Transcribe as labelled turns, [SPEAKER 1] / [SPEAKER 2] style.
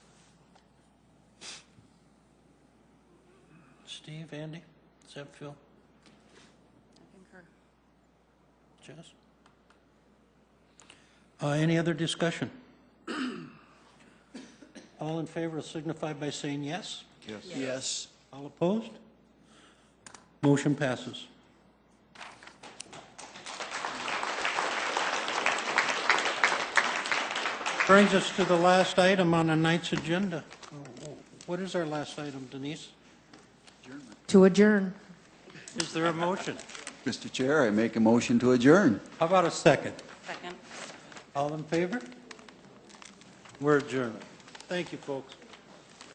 [SPEAKER 1] Steve, Andy, does that feel,
[SPEAKER 2] I concur.
[SPEAKER 1] Jess? Uh, Any other discussion? All in favor signify by saying yes.
[SPEAKER 3] Yes.
[SPEAKER 1] Yes. All opposed? Motion passes. Brings us to the last item on the night's agenda. Oh, What is our last item, Denise?
[SPEAKER 4] To adjourn.
[SPEAKER 1] Is there a motion?
[SPEAKER 3] Mr. Chair, I make a motion to adjourn.
[SPEAKER 1] How about a second?
[SPEAKER 2] Second.
[SPEAKER 1] All in favor? We're adjourned. Thank you, folks.